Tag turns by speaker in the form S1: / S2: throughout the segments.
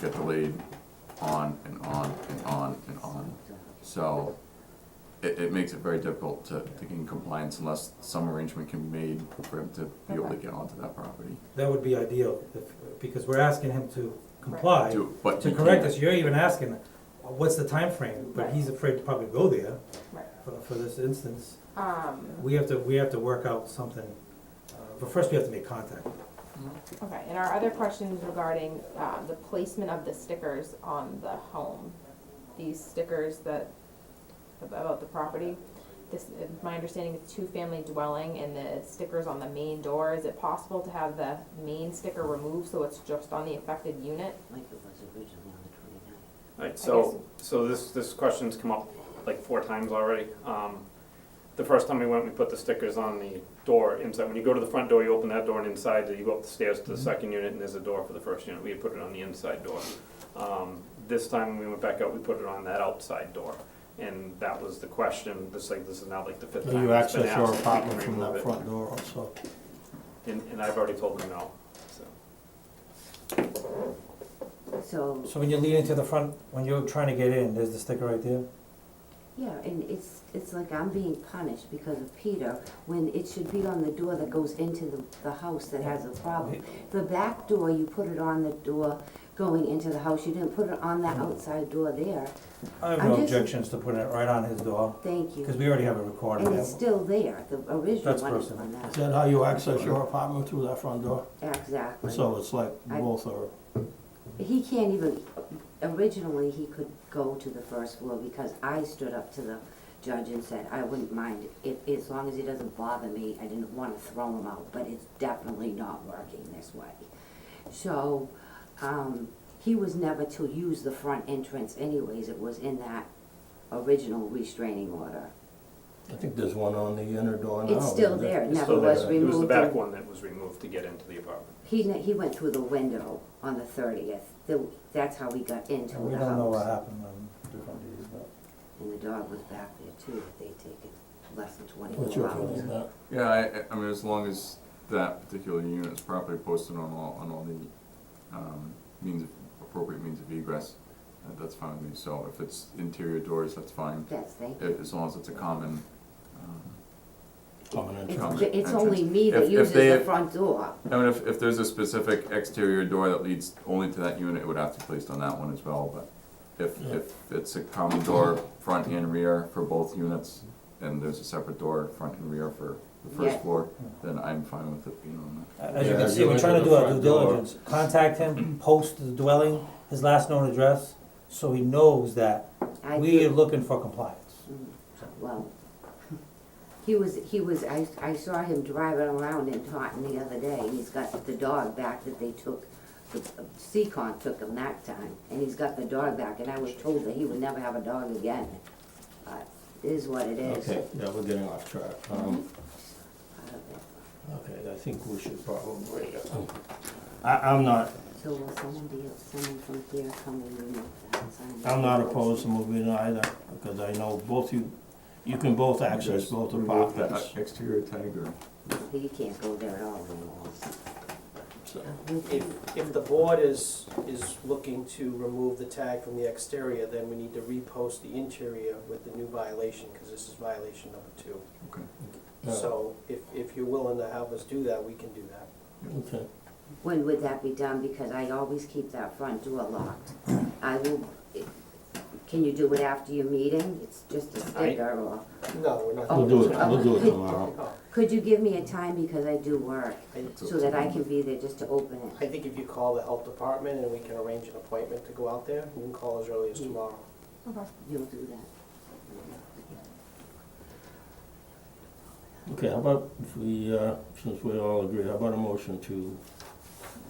S1: get delayed on and on and on and on. So it, it makes it very difficult to, to gain compliance unless some arrangement can be made for him to be able to
S2: Okay.
S1: get onto that property.
S3: That would be ideal, if, because we're asking him to comply, to
S1: Do- but he
S3: correct
S1: can't.
S3: us, you're even asking, what's the time frame? But
S2: Right.
S3: he's afraid to probably go there
S2: Right.
S3: for, for this instance.
S2: Um,
S3: We have to, we have to work out something, uh, but first we have to make contact.
S2: okay, and our other questions regarding, uh, the placement of the stickers on the home. These stickers that, about the property, this, uh, my understanding is two-family dwelling and the stickers on the main door. Is it possible to have the main sticker removed so it's just on the affected unit?
S4: Like it was originally on the
S5: Right, so, so this, this question's come up like four times already. Um, The first time we went, we put the stickers on the door inside, when you go to the front door, you open that door and inside, you go up the stairs
S4: Mm-hmm.
S5: to the second unit and there's a door for the first unit, we had put it on the inside door. Um, This time when we went back out, we put it on that outside door, and that was the question, this like, this is now like the fifth time
S6: You
S5: it's been
S6: access
S5: asked.
S6: your
S5: if we can
S6: apartment from
S5: remove
S6: that
S5: it.
S6: front door also.
S5: And, and I've already told them no, so.
S4: twenty-nine. So,
S3: So when you lead into the front, when you're trying to get in, there's the sticker right there?
S4: yeah, and it's, it's like I'm being punished because of Peter, when it should be on the door that goes into the, the house that has a problem. The back door, you put it on the door going into the house, you didn't put it
S3: Mm-hmm.
S4: on that outside door there,
S3: I have
S4: I'm
S3: no
S4: just-
S3: objections to putting it right on his door,
S4: thank
S3: because
S4: you.
S3: we already have it recorded.
S4: And it's still there, the original
S3: That's
S4: one is
S3: personal.
S4: on
S6: Is
S4: that,
S6: that how you access your apartment through that front door?
S4: exactly.
S6: So it's like
S4: I-
S6: both are,
S4: He can't even, originally, he could go to the first floor because I stood up to the judge and said, I wouldn't mind if, as long as he doesn't bother me, I didn't wanna throw him out, but it's definitely not working this way. So, um, he was never to use the front entrance anyways, it was in that original restraining order.
S6: I think there's one on the inner door now.
S4: It's still
S6: isn't it?
S4: there, it
S5: It's
S4: never
S5: still
S4: was
S5: there.
S4: removed.
S5: It was the back
S4: and-
S5: one that was removed to get into the apartment.
S4: He, ne- he went through the window on the thirtieth, that's how he got into the house.
S3: We don't know what happened on different days, but.
S4: And the dog was back there too, if they'd taken less than
S6: What's
S4: twenty-four
S6: your feeling
S4: hours.
S6: on that?
S1: Yeah, I, I- I mean, as long as that particular unit is properly posted on all, on all the, um, means, of- appropriate means of egress, uh, that's fine with me. So if it's interior doors, that's fine,
S4: Yes, thank
S1: a-
S4: you.
S1: as long as it's a common, um,
S6: Common
S4: It's,
S6: entrance.
S4: ju- it's only me
S1: If-
S4: that
S1: if
S4: uses the
S1: they-
S4: front door.
S1: I mean, if, if there's a specific exterior door that leads only to that unit, it would have to be placed on that one as well, but if,
S6: Yeah.
S1: if it's a common door, front and rear for both units, and there's a separate door, front and rear for the
S4: Yeah.
S1: first floor, then I'm fine with it being on
S3: As you
S6: Yeah,
S3: can see,
S6: you
S3: we're
S6: enter
S3: trying to
S6: the
S3: do our due
S6: front door.
S3: diligence, contact him, post the dwelling, his last known address, so he knows that
S4: I
S3: we are
S4: did-
S3: looking for compliance.
S4: Mm, Well, he was, he was, I, I saw him driving around in Taunton the other day, and he's got the dog back that they took, the, uh, Seacon took him that time, and he's got the dog back, and I was told that he would never have a dog again. But it is what it is.
S6: Okay, yeah, we're getting off track. Um,
S4: I don't know.
S6: okay, I think we should probably, uh, I, I'm not,
S4: So will someone be, someone from here come and remove that sign?
S6: I'm not opposed to moving either, because I know both you, you can both access both
S1: that.
S6: apartments.
S1: Exterior tag or?
S4: He can't go there at all anymore.
S6: so.
S7: If, if the board is, is looking to remove the tag from the exterior, then we need to repost the interior with the new violation, because this is violation number two.
S6: Yeah,
S7: So if, if you're willing to have us do that, we can do that.
S6: Okay,
S4: When would that be done? Because I always keep that front door locked. I will, can you do it after your meeting? It's just a sticker or,
S7: No, we're not.
S6: we'll do it, we'll do it tomorrow.
S7: Oh,
S4: could you give me a time because I do work?
S7: I,
S4: So that I can be there just to open it.
S7: I think if you call the health department and we can arrange an appointment to go out there, you can call as early as tomorrow.
S4: You'll do that.
S6: Okay, how about if we, uh, since we all agree, how about a motion to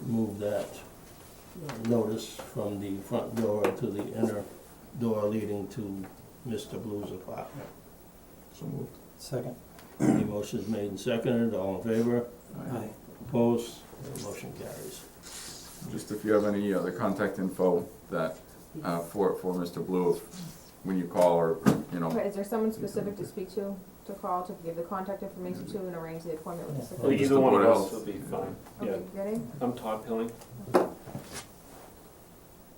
S6: move that uh, notice from the front door to the inner door leading to Mr. Blue's apartment?
S1: So moved.
S3: Second.
S6: The motion's made and seconded, all in favor,
S3: Aye.
S6: opposed, the motion carries.
S1: Just if you have any other contact info that, uh, for, for Mr. Blue, if- when you call or, you know,
S2: Okay, is there someone specific to speak to, to call, to give the contact information to and arrange the appointment with the
S3: Yeah.
S2: secretary?
S5: Either
S1: the
S5: one
S1: Board
S5: of
S1: of
S5: us
S1: Health.
S5: would be fine, yeah.
S2: Okay, ready?
S5: I'm Todd Pilling.